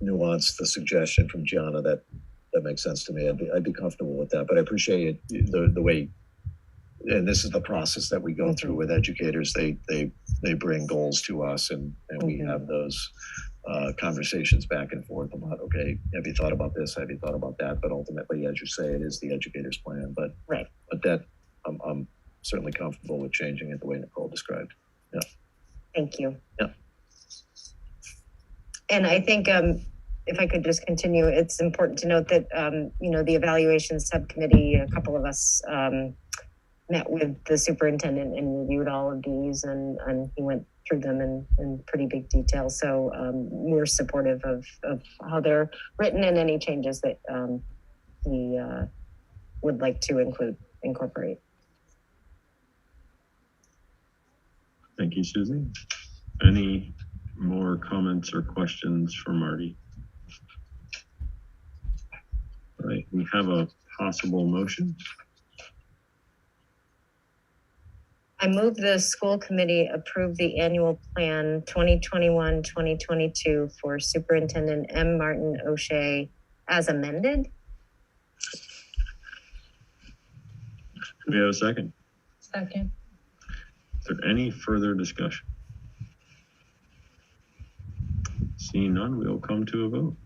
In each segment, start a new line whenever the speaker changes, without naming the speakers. nuance um, the suggestion from Gianna. That that makes sense to me. I'd be, I'd be comfortable with that. But I appreciate it, the the way. And this is the process that we go through with educators. They they they bring goals to us, and and we
Mhm.
have those uh, conversations back and forth about okay, have you thought about this? Have you thought about that? But ultimately, as you say, it is the educator's plan. But
Right.
But that I'm I'm certainly comfortable with changing it the way Nicole described.
Thank you.
Yeah.
And I think, um, if I could just continue, it's important to note that, um, you know, the evaluation subcommittee, a couple of us, um, met with the superintendent and reviewed all of these and, and he went through them in, in pretty big detail. So, um, we're supportive of, of how they're written and any changes that, um, he, uh, would like to include, incorporate.
Thank you, Susie. Any more comments or questions for Marty? All right, we have a possible motion.
I move the school committee approve the annual plan 2021, 2022 for Superintendent M. Martin O'Shea as amended.
Do we have a second?
Second.
Is there any further discussion? Seeing none, we will come to a vote.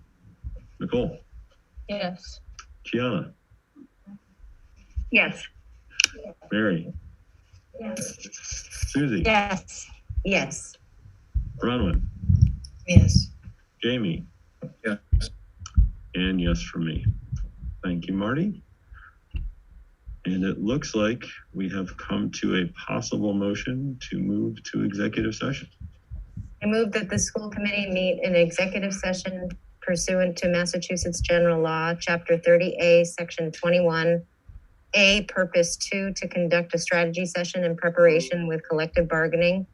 Nicole,
Yes.
Gianna,
Yes.
Mary,
Yes.
Susie,
Yes.
Yes.
Bronwyn,
Yes.
Jamie?
Yes.
And yes for me. Thank you, Marty. And it looks like we have come to a possible motion to move to executive session.
I move that the school committee meet in executive session pursuant to Massachusetts General Law, Chapter 30A, Section 21. A, Purpose 2, to conduct a strategy session in preparation with collective bargaining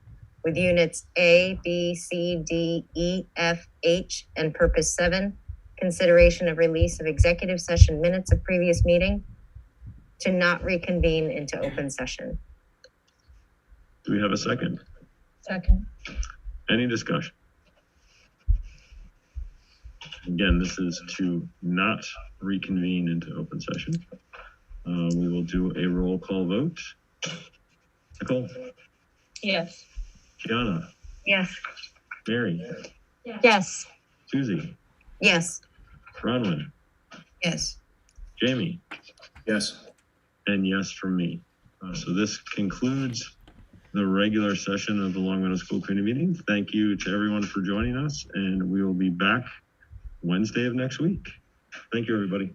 with units A, B, C, D, E, F, H, and Purpose 7, consideration of release of executive session minutes of previous meeting to not reconvene into open session.
Do we have a second?
Second.
Any discussion? Again, this is to not reconvene into open session. Uh, we will do a roll call vote. Nicole,
Yes.
Gianna,
Yes.
Mary,
Yes.
Susie,
Yes.
Bronwyn,
Yes.
Jamie.
Yes.
And yes from me. Uh, so this concludes the regular session of the Long Meadow School Committee meeting. Thank you to everyone for joining us, and we will be back Wednesday of next week. Thank you, everybody.